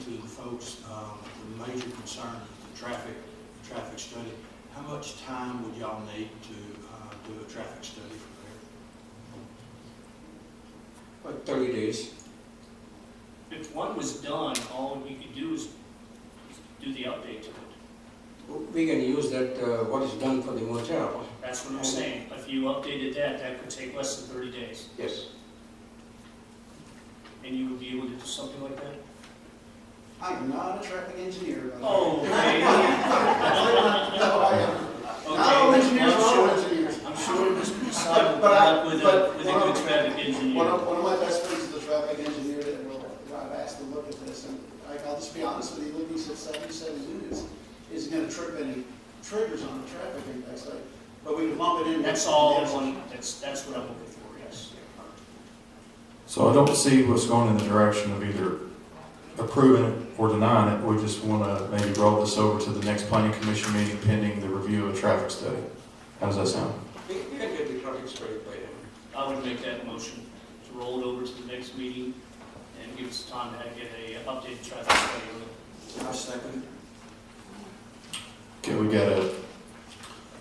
folks, um, the major concern is the traffic, the traffic study. How much time would y'all need to uh, do a traffic study from there? About thirty days. If one was done, all you could do is do the update to it. We can use that, uh, what is done for the motel. That's what I'm saying. If you updated that, that could take less than thirty days. Yes. And you would be able to do something like that? I am not a traffic engineer. by the way. Oh, okay. No, I am. Not all Okay. engineers, I'm are all sure- engineers. I'm sure Mr. Masad will But I- come up with a, but with a one good of- traffic One engineer. of, one of my best friends is a traffic engineer that will, I've asked to look at this, and I- I'll just be honest with you, looking at seventy-seven units is gonna trip any triggers on the traffic index, like, but we can lump it in. That's all, in one- that's, that's what I'm looking for, yes. So I don't see what's going in the direction of either approving it or denying it. We just want to maybe roll this over to the next planning commission meeting pending the review of a traffic study. How does that sound? We we can get the traffic straight by then. I would make that motion to roll it over to the next meeting and give us time to get a updated traffic study on it. I second. Okay, we got a,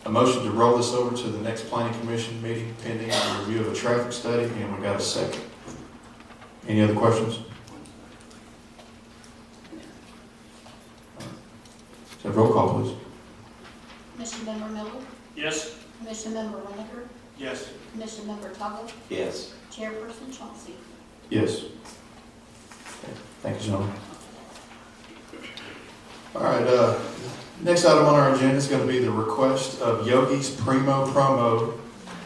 a motion to roll this over to the next planning commission meeting pending the review of a traffic study, and we got a second. Any other questions? So roll call, please. Commission Member Miller, Yes? Commission Member Reiniger, Yes. Commission Member Tuggle, Yes. Chairperson Chauncey. Yes. Okay, Thank you, gentlemen. All right, uh, next item on our agenda is going to be the request of Yogi's Primo Promo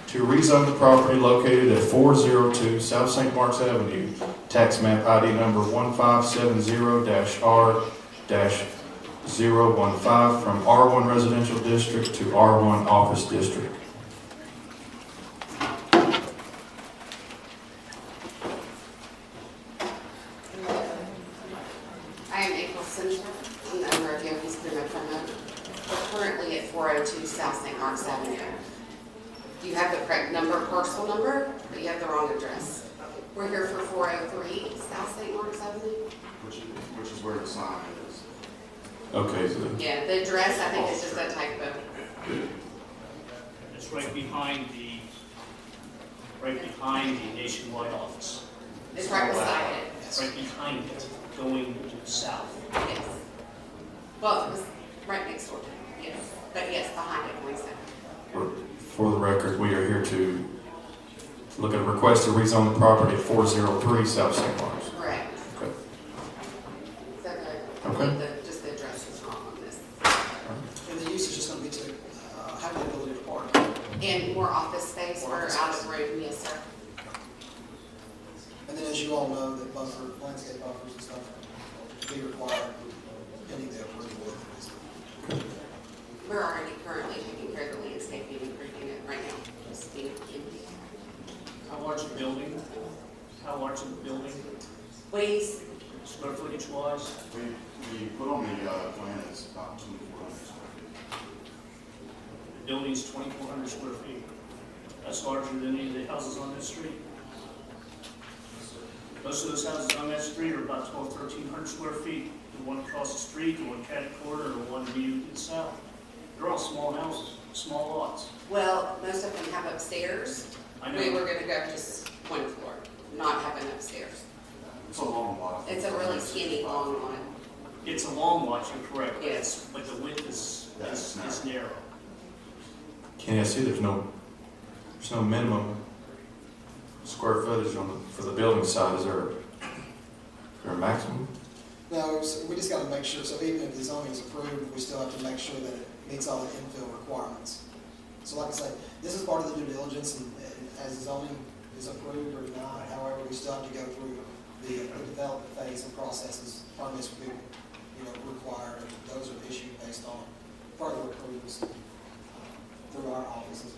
to rezone the property located at 402 South St. Mark's Avenue, tax map ID number 1570-R-015 from R1 Residential District to R1 Office District. I am April Singer, I'm the owner of Yogi's Prima Primo. We're currently at 402 South St. Mark's Avenue. You have the correct number, parcel number, but you have the wrong address. We're here for 403 South St. Mark's Avenue. Which is, which is where the sign is. Okay, so Yeah, the address, I think, is just a typo. It's right behind the, right behind the nationwide office. It's right beside it. It's Right behind it, going south. Yes. Well, it was right next door to it, yes. But yes, behind it, please. For for the record, we are here to look at a request to rezone the property at 403 South St. Lawrence. Correct. Okay. So the, Okay. the- just the address is wrong on this. And the usage is gonna be to, uh, have the ability to park. And more office space, we're out of room, yes, sir. And then, as you all know, that buffer, landscape buffers and stuff, they require any of the approval of this. We're already currently taking care of the landscaping and creating it right now. Just need to give you- How large a building? How large a building, Please, square footage wise? We, we put on the, uh, plan it's about twenty-four hundred square feet. The building's twenty-four hundred square feet. That's larger than any of the houses on this street. Most of those houses on that street are about twelve, thirteen hundred square feet. The one across the street, the one catty corner, the one viewed in south. They're all small houses, small lots. well, most of them have upstairs. I We know, were gonna go just one floor, not have an upstairs. It's a long lot. It's a really skinny, long one. it's a long lot, you're correct. but Yes. But the width is, is That's is narrow. Kenny, I see there's no, there's no minimum square footage on the, for the building side. Is there, is there a maximum? No, it's- we just gotta make sure, so even if the zoning is approved, we still have to make sure that it meets all the infill requirements. So like I say, this is part of the due diligence, and and as zoning is approved or not, however, we still have to go through the the development phase and processes, permits will be, you know, required, and those are issued based on further approvals uh, through our offices.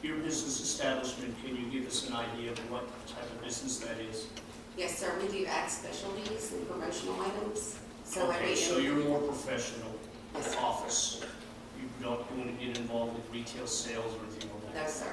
Your business establishment, can you give us an idea of what type of business that is? Yes, sir, we do add specialties and promotional items. So like Okay, we- so you're more professional Yes, sir. office. You don't want to get involved with retail sales or anything like that. No, sir.